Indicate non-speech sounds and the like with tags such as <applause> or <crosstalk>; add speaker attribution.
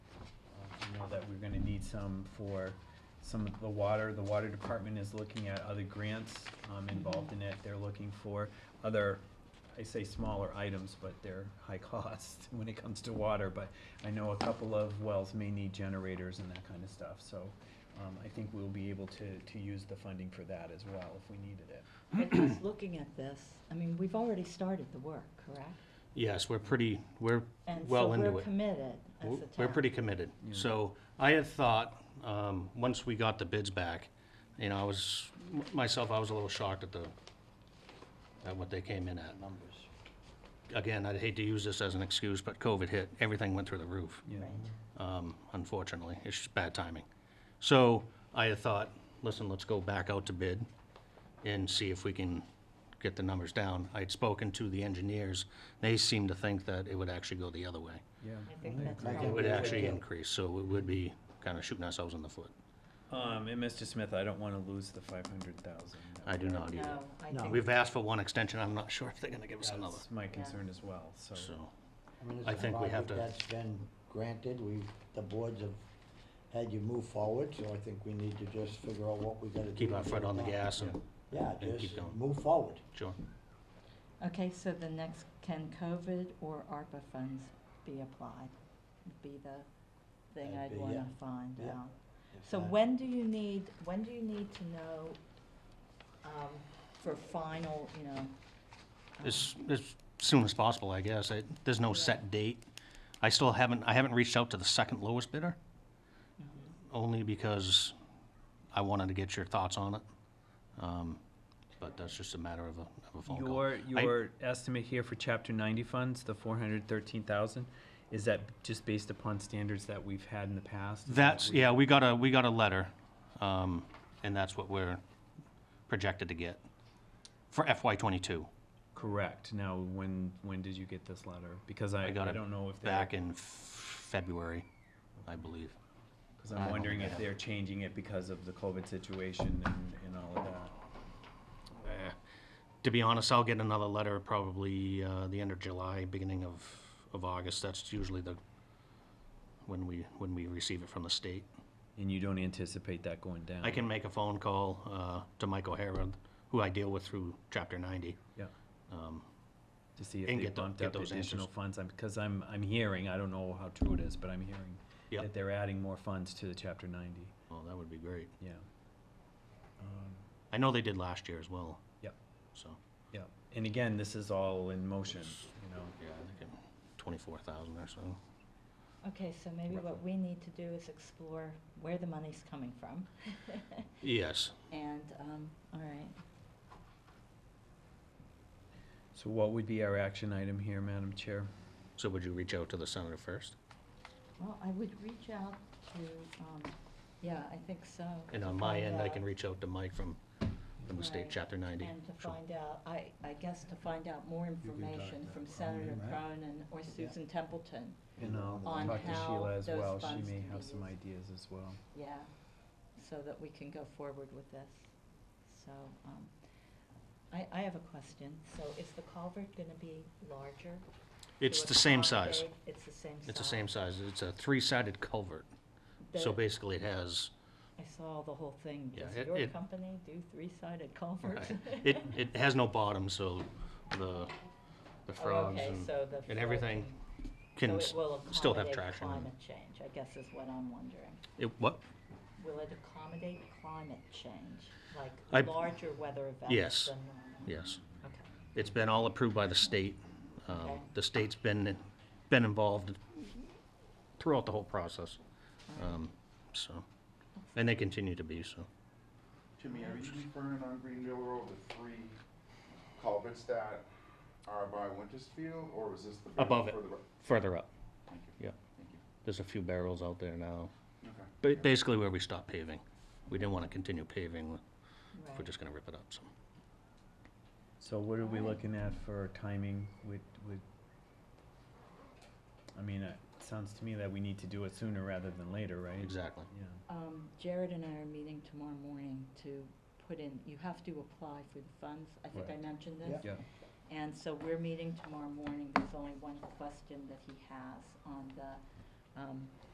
Speaker 1: uh, some for some of the water. The water department is looking at other grants um, involved in it. They're looking for other, I say smaller items, but they're high <laughs> cost when it comes to water. But I know a couple of wells may need generators and that kind of stuff. So um, I think we'll be able to, to use the funding for that as well if we needed it.
Speaker 2: And just looking at this, I mean, we've already started the work, correct?
Speaker 3: Yes, we're pretty, we're
Speaker 2: And
Speaker 3: well
Speaker 2: so
Speaker 3: into it.
Speaker 2: we're committed as a
Speaker 3: We're
Speaker 2: town.
Speaker 3: we're pretty committed.
Speaker 1: Yeah.
Speaker 3: So I had thought, um, once we got the bids back, you know, I was, m- myself, I was a little shocked at the, at what they came in at.
Speaker 4: numbers.
Speaker 3: Again, I'd hate to use this as an excuse, but COVID hit, everything went through the roof,
Speaker 1: you know.
Speaker 2: Right.
Speaker 3: um, unfortunately. It's just bad timing. So I had thought, listen, let's go back out to bid and see if we can get the numbers down. I had spoken to the engineers. They seemed to think that it would actually go the other way.
Speaker 1: Yeah.
Speaker 2: I think that's
Speaker 4: agree.
Speaker 2: right.
Speaker 3: It would
Speaker 4: Yeah.
Speaker 3: actually increase, so it would be kind of shooting ourselves in the foot.
Speaker 1: Um, and Mr. Smith, I don't wanna lose the five hundred thousand.
Speaker 3: I do not either.
Speaker 2: No, I
Speaker 4: No.
Speaker 2: think.
Speaker 3: We've asked for one extension, I'm not <laughs> sure if they're gonna give us another,
Speaker 1: That's my concern as well, so.
Speaker 3: so.
Speaker 4: mean, it's
Speaker 3: I
Speaker 4: a
Speaker 3: think we have
Speaker 4: project
Speaker 3: to-
Speaker 4: That's been granted, we, the boards have had you move forward, so I think we need to just figure out what we gotta do.
Speaker 3: Keep
Speaker 4: to
Speaker 3: our
Speaker 4: get
Speaker 3: foot
Speaker 4: it
Speaker 3: on the
Speaker 4: done.
Speaker 3: gas and,
Speaker 4: Yeah,
Speaker 3: and keep
Speaker 4: just
Speaker 3: going.
Speaker 4: move forward.
Speaker 3: sure.
Speaker 2: Okay, so the next, can COVID or ARPA funds be applied? Would Be the thing
Speaker 4: That'd
Speaker 2: I'd
Speaker 4: be-
Speaker 2: wanna
Speaker 4: yeah.
Speaker 2: find
Speaker 4: Yeah.
Speaker 2: out.
Speaker 4: If
Speaker 2: So
Speaker 4: not-
Speaker 2: when do you need, when do you need to know, um, for final, you know? um,
Speaker 3: As, as soon as possible, I guess, I, there's no set date. I still haven't, I haven't reached out to the second lowest bidder,
Speaker 2: mhm.
Speaker 3: only because I wanted to get your thoughts on it. Um, But that's just a matter of a, of a phone call.
Speaker 1: Your,
Speaker 3: I-
Speaker 1: your estimate here for chapter ninety funds, the four hundred thirteen thousand, is that just based upon standards that we've had in the past? Is that
Speaker 3: That's,
Speaker 1: we-
Speaker 3: yeah, we got a, we got a letter, um, and that's what we're projected to get for FY twenty-two.
Speaker 1: Correct. Now, when, when did you get this letter? Because I, I
Speaker 3: I got it
Speaker 1: don't know if they're,
Speaker 3: back in February, I believe.
Speaker 1: because
Speaker 3: I
Speaker 1: I'm
Speaker 3: don't
Speaker 1: wondering
Speaker 3: think I
Speaker 1: if
Speaker 3: have
Speaker 1: they're changing it because of the COVID situation and, and all of that.
Speaker 3: Eh, To be honest, I'll get another letter probably uh, the end of July, beginning of, of August. That's usually the, when we, when we receive it from the state.
Speaker 1: And you don't anticipate that going down?
Speaker 3: I can make a phone call uh, to Mike O'Hara, who I deal with through Chapter 90.
Speaker 1: Yeah.
Speaker 3: Um,
Speaker 1: To see if
Speaker 3: and
Speaker 1: they
Speaker 3: get tho-
Speaker 1: bumped
Speaker 3: get
Speaker 1: up
Speaker 3: those
Speaker 1: additional
Speaker 3: answers.
Speaker 1: funds, I'm, because I'm, I'm hearing, I don't know how true it is, but I'm hearing
Speaker 3: Yep.
Speaker 1: that they're adding more funds to the chapter ninety,
Speaker 3: Well, Oh, that would be great.
Speaker 1: yeah. Um,
Speaker 3: I know they did last year as well.
Speaker 1: Yep.
Speaker 3: So,
Speaker 1: Yeah, and again, this is all in motion, you know.
Speaker 3: yeah, I think twenty-four thousand or so.
Speaker 2: Okay, so maybe what we need to do is explore where the money's coming from. <laughs>
Speaker 3: Yes.
Speaker 2: And, um, all right,
Speaker 1: So what would be our action item here, Madam Chair?
Speaker 3: So would you reach out to the senator first?
Speaker 2: well, I would reach out to, um, yeah, I think so.
Speaker 3: And
Speaker 2: to
Speaker 3: on my
Speaker 2: find
Speaker 3: end, I
Speaker 2: out-
Speaker 3: can reach out to Mike from, from the state,
Speaker 2: Right.
Speaker 3: Chapter 90.
Speaker 2: And to
Speaker 3: Sure.
Speaker 2: find out, I, I guess to find out more
Speaker 4: can talk
Speaker 2: information
Speaker 4: to
Speaker 2: from
Speaker 4: Cronin,
Speaker 2: Senator
Speaker 4: right?
Speaker 2: Cronin or Susan Templeton,
Speaker 1: And I'll
Speaker 2: On
Speaker 1: talk to
Speaker 2: how
Speaker 1: Sheila as
Speaker 2: those
Speaker 1: well, she
Speaker 2: funds
Speaker 1: may
Speaker 2: can be
Speaker 1: have some
Speaker 2: used.
Speaker 1: ideas as well.
Speaker 2: yeah, so that we can go forward with this. So, um, I, I have a question. So is the culvert gonna be larger? to
Speaker 3: It's the same size.
Speaker 2: accommodate- It's the same size?
Speaker 3: It's the same size. It's a three-sided culvert. So
Speaker 2: The-
Speaker 3: basically, it has,
Speaker 2: I saw the whole thing.
Speaker 3: Yeah,
Speaker 2: Does
Speaker 3: it-
Speaker 2: your
Speaker 3: it-
Speaker 2: company do three-sided culverts?
Speaker 3: it,
Speaker 2: <laughs>
Speaker 3: it has no bottom, so the, the
Speaker 2: Oh,
Speaker 3: frogs
Speaker 2: okay,
Speaker 3: and,
Speaker 2: so the
Speaker 3: and everything
Speaker 2: flood
Speaker 3: can
Speaker 2: so
Speaker 3: s-
Speaker 2: it will
Speaker 3: still have
Speaker 2: accommodate
Speaker 3: traction.
Speaker 2: Climate change, I guess is what I'm wondering.
Speaker 3: It, what?
Speaker 2: Will it accommodate climate change,
Speaker 3: I-
Speaker 2: like larger weather events
Speaker 3: Yes.
Speaker 2: than normal?
Speaker 3: Yes.
Speaker 2: Okay.
Speaker 3: It's been all approved by the state. Um,
Speaker 2: Okay.
Speaker 3: The state's been, been involved throughout the whole process, um, so, and they continue to be, so.
Speaker 5: Jimmy, are you referring on Greenville Road, the three culverts that are by Wintersfield, or is this the? bit
Speaker 3: Above it.
Speaker 5: further up?
Speaker 3: Further up,
Speaker 5: Thank you,
Speaker 3: yeah.
Speaker 5: thank you.
Speaker 3: There's a few barrels out there now.
Speaker 5: Okay.
Speaker 3: Ba- Basically where we stopped paving. We didn't want to continue paving if we're
Speaker 2: Right.
Speaker 3: just going to rip it up, so.
Speaker 1: So what are we
Speaker 2: Alright.
Speaker 1: looking at for timing with, with? I mean, it sounds to me that we need to do it sooner rather than later, right?
Speaker 3: Exactly.
Speaker 1: Yeah,
Speaker 2: Um, Jared and I are meeting tomorrow morning to put in, you have to apply for the funds, I think I
Speaker 1: Right.
Speaker 2: mentioned this.
Speaker 4: Yeah.
Speaker 1: yeah.
Speaker 2: And so we're meeting tomorrow morning, there's only one question that he has on the, um,